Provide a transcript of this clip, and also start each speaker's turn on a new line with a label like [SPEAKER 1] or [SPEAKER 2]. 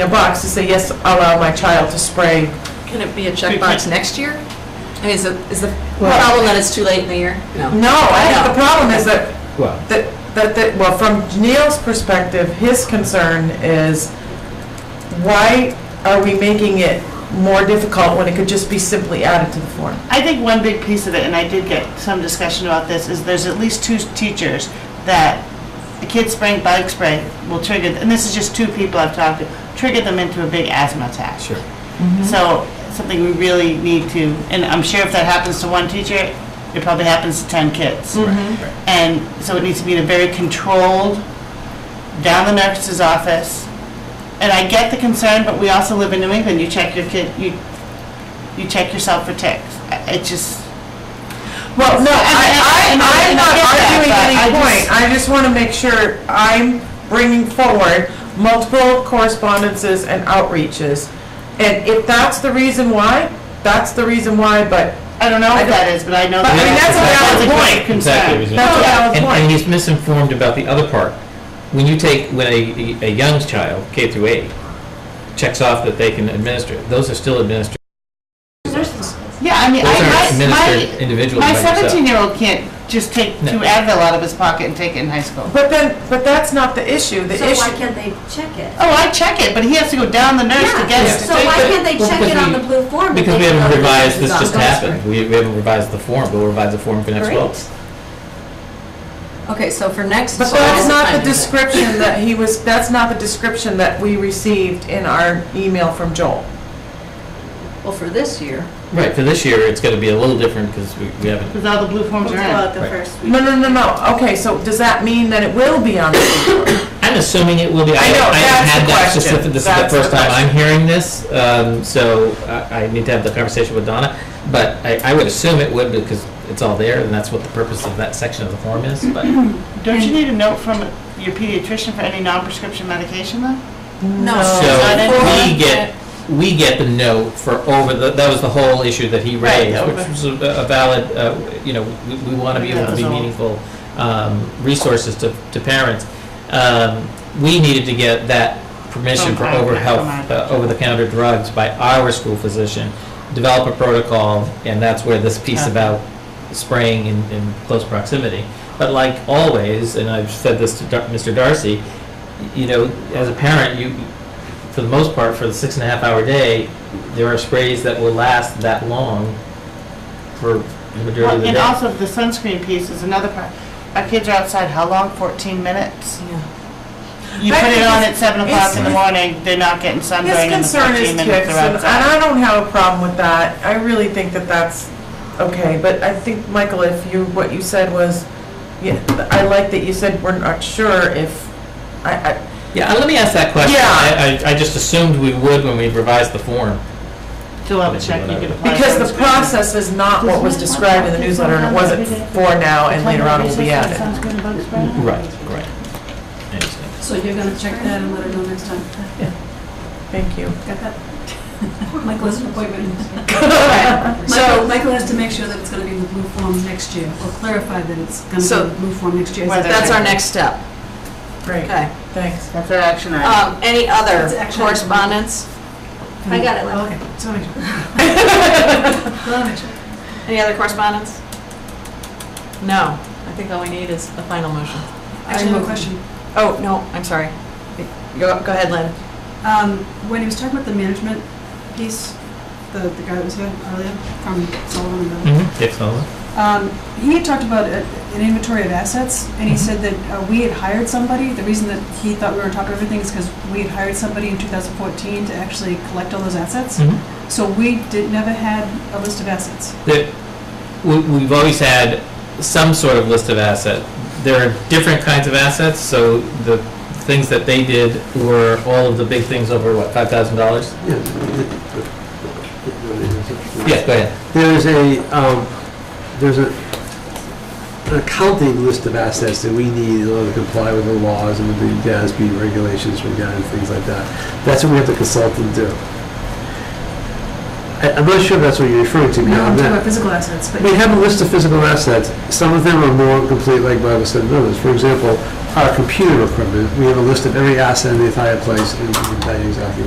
[SPEAKER 1] a box to say, yes, allow my child to spray.
[SPEAKER 2] Can it be a checkbox next year? I mean, is the, is the problem that it's too late in the year?
[SPEAKER 1] No, I think the problem is that,
[SPEAKER 3] Well,
[SPEAKER 1] that, that, that- well, from Neil's perspective, his concern is, why are we making it more difficult when it could just be simply added to the form?
[SPEAKER 4] I think one big piece of it, and I did get some discussion about this, is there's at least two teachers that the kids spraying bug spray will trigger, and this is just two people I've talked to, trigger them into a big asthma attack.
[SPEAKER 3] sure.
[SPEAKER 1] Mm-hmm.
[SPEAKER 4] So, something we really need to, and I'm sure if that happens to one teacher, it probably happens to 10 kids.
[SPEAKER 5] Mm.
[SPEAKER 4] And so it needs to be in a very controlled, down the nurse's office. And I get the concern, but we also live in New England, you check your kid, you, you check yourself for ticks. I- It just,
[SPEAKER 1] Well, no, I, I,
[SPEAKER 4] And- and-
[SPEAKER 1] I'm
[SPEAKER 4] and
[SPEAKER 1] not
[SPEAKER 4] I get that,
[SPEAKER 1] arguing
[SPEAKER 4] but
[SPEAKER 1] any
[SPEAKER 4] I
[SPEAKER 1] point,
[SPEAKER 4] just-
[SPEAKER 1] I just wanna make sure I'm bringing forward multiple correspondences and outreaches. And if that's the reason why, that's the reason why, but
[SPEAKER 4] I don't know
[SPEAKER 1] I
[SPEAKER 4] if that is, but I know.
[SPEAKER 1] But I
[SPEAKER 4] that-
[SPEAKER 1] mean, that's a valid point.
[SPEAKER 4] Concern.
[SPEAKER 3] Exactly.
[SPEAKER 1] that's a valid
[SPEAKER 5] And,
[SPEAKER 1] point.
[SPEAKER 5] and he's misinformed about the other part. When you take, when a, a young child, K through eight, checks off that they can administer, it, those are still administered.
[SPEAKER 4] Yeah, I mean,
[SPEAKER 5] Those aren't
[SPEAKER 4] I, my,
[SPEAKER 5] administered
[SPEAKER 4] my,
[SPEAKER 5] individually by
[SPEAKER 4] my
[SPEAKER 5] yourself.
[SPEAKER 4] seventeen-year-old can't just take
[SPEAKER 5] No.
[SPEAKER 4] two Advil out of his pocket and take it in high school.
[SPEAKER 1] But then, but that's not the issue. The
[SPEAKER 6] So why
[SPEAKER 1] issue,
[SPEAKER 6] can't they check it?
[SPEAKER 4] Oh, I check it, but he has to go down the nurse to get
[SPEAKER 6] Yeah,
[SPEAKER 4] it. to
[SPEAKER 6] so
[SPEAKER 4] take
[SPEAKER 6] why
[SPEAKER 4] it.
[SPEAKER 6] can't they
[SPEAKER 5] Well,
[SPEAKER 6] check
[SPEAKER 5] because
[SPEAKER 6] it on
[SPEAKER 5] we-
[SPEAKER 6] the blue form? if
[SPEAKER 5] Because we
[SPEAKER 6] they don't know
[SPEAKER 5] haven't
[SPEAKER 6] that
[SPEAKER 5] revised,
[SPEAKER 6] it's
[SPEAKER 5] this
[SPEAKER 6] on
[SPEAKER 5] just
[SPEAKER 6] Gulfstream?
[SPEAKER 5] happened. We, we haven't revised the form, but we'll revise the form for next fall.
[SPEAKER 2] Okay, so for next.
[SPEAKER 1] but that's not the description that he was, that's not the description that we received in our email from Joel.
[SPEAKER 2] Well, for this year.
[SPEAKER 5] Right, for this year, it's gonna be a little different because we, we haven't,
[SPEAKER 4] Because all the blue forms
[SPEAKER 6] We'll
[SPEAKER 4] are
[SPEAKER 6] do
[SPEAKER 4] in.
[SPEAKER 6] it the
[SPEAKER 5] Right.
[SPEAKER 6] first week.
[SPEAKER 1] No, no, no, no. Okay, so does that mean that it will be on the,
[SPEAKER 5] I'm assuming it will be.
[SPEAKER 1] I know,
[SPEAKER 5] haven't
[SPEAKER 1] that's
[SPEAKER 5] had
[SPEAKER 1] the
[SPEAKER 5] that
[SPEAKER 1] question.
[SPEAKER 5] specific- This is the
[SPEAKER 1] That's the
[SPEAKER 5] first time
[SPEAKER 1] question.
[SPEAKER 5] I'm hearing this, um, so I, I need to have the conversation with Donna. But I, I would assume it would because it's all there and that's what the purpose of that section of the form is, but.
[SPEAKER 4] Don't you need a note from your pediatrician for any non-prescription medication though?
[SPEAKER 2] No.
[SPEAKER 4] not in
[SPEAKER 5] So we
[SPEAKER 4] here.
[SPEAKER 5] get, we get the note for over the, that was the whole issue that he
[SPEAKER 4] Right,
[SPEAKER 5] raised,
[SPEAKER 4] over.
[SPEAKER 5] which was a a valid, uh, you know, we- we want to be able to be
[SPEAKER 4] Resolve.
[SPEAKER 5] meaningful um, resources to, to parents. Um, We needed to get that permission for
[SPEAKER 4] From
[SPEAKER 5] over
[SPEAKER 4] our-
[SPEAKER 5] health,
[SPEAKER 4] from
[SPEAKER 5] uh,
[SPEAKER 4] our-
[SPEAKER 5] over-the-counter drugs by our school physician, develop a protocol, and that's where this piece
[SPEAKER 4] Okay.
[SPEAKER 5] about spraying in, in close proximity. But like always, and I've said this to Dar- Mr. Darcy, you know, as a parent, you, for the most part, for the six and a half hour day, there are sprays that will last that long for the majority of
[SPEAKER 4] Well,
[SPEAKER 5] the
[SPEAKER 4] and
[SPEAKER 5] day.
[SPEAKER 4] also the sunscreen piece is another part. Our kids are outside how long? Fourteen minutes? You
[SPEAKER 1] But
[SPEAKER 4] put it on at
[SPEAKER 1] it's-
[SPEAKER 4] seven o'clock in the
[SPEAKER 1] it's-
[SPEAKER 4] morning, they're not getting sunburned
[SPEAKER 1] his
[SPEAKER 4] in the
[SPEAKER 1] concern is
[SPEAKER 4] fourteen minutes
[SPEAKER 1] ticks,
[SPEAKER 4] they're
[SPEAKER 1] and and
[SPEAKER 4] outside.
[SPEAKER 1] I don't have a problem with that. I really think that that's okay, but I think, Michael, if you, what you said was, yeah, I like that you said we're not sure if, I, I,
[SPEAKER 5] Yeah, and let me ask that question.
[SPEAKER 1] Yeah.
[SPEAKER 5] I, I- I just assumed we would when we revised the form.
[SPEAKER 4] Fill out a check, you can apply.
[SPEAKER 1] Because the
[SPEAKER 4] sunscreen.
[SPEAKER 1] process is not what was described in the newsletter, and it wasn't for now, and later on it will be added.
[SPEAKER 4] Mm-hmm.
[SPEAKER 5] Right, right. I understand.
[SPEAKER 7] So you're gonna check that and let her know next time.
[SPEAKER 1] Thank you.
[SPEAKER 7] Got that? Michael has an appointment. Michael,
[SPEAKER 1] So,
[SPEAKER 7] Michael has to make sure that it's gonna be in the blue form next year, or clarify that it's gonna be
[SPEAKER 2] So-
[SPEAKER 7] in the blue form next year. Is
[SPEAKER 4] Whether-
[SPEAKER 7] that-
[SPEAKER 2] That's our next step.
[SPEAKER 1] great,
[SPEAKER 2] Okay.
[SPEAKER 1] thanks.
[SPEAKER 4] That's an action item.
[SPEAKER 2] Um, any other
[SPEAKER 7] It's actually-
[SPEAKER 2] correspondence?
[SPEAKER 6] I got it,
[SPEAKER 7] Oh,
[SPEAKER 6] Leslie.
[SPEAKER 7] Okay, so make sure. Gotta make sure.
[SPEAKER 2] Any other correspondence? No. I think all we need is the final motion.
[SPEAKER 7] Actually, I have a question.
[SPEAKER 2] Oh, no, I'm sorry. Go, go ahead, Lynn.
[SPEAKER 7] Um, when he was talking about the management piece, the, the guy that was here earlier from Sullivan and Miller,
[SPEAKER 5] Dick Sullivan?
[SPEAKER 7] Um, He had talked about a- an inventory of assets, and he said that uh, we had hired somebody. The reason that he thought we were on top of everything is because we had hired somebody in 2014 to actually collect all those assets.
[SPEAKER 5] Mhm.
[SPEAKER 7] So we did, never had a list of assets.
[SPEAKER 5] that we, we've always had some sort of list of asset. There are different kinds of assets, so the things that they did were all of the big things over, what, five thousand dollars? Yeah, go ahead.
[SPEAKER 3] There's a, um, there's a, an accounting list of assets that we need in order to comply with the laws and with the GASB regulations from GAN and things like that. That's what we have to consult and do. I, I'm not sure if that's what you're referring to,
[SPEAKER 7] No, I'm
[SPEAKER 3] beyond
[SPEAKER 7] talking
[SPEAKER 3] that.
[SPEAKER 7] about physical assets, but
[SPEAKER 3] We have a list of physical assets. Some of them are more complete, like Bible said, than others. For example, our computer equipment, we have a list of every asset in the entire place, and we can tell you exactly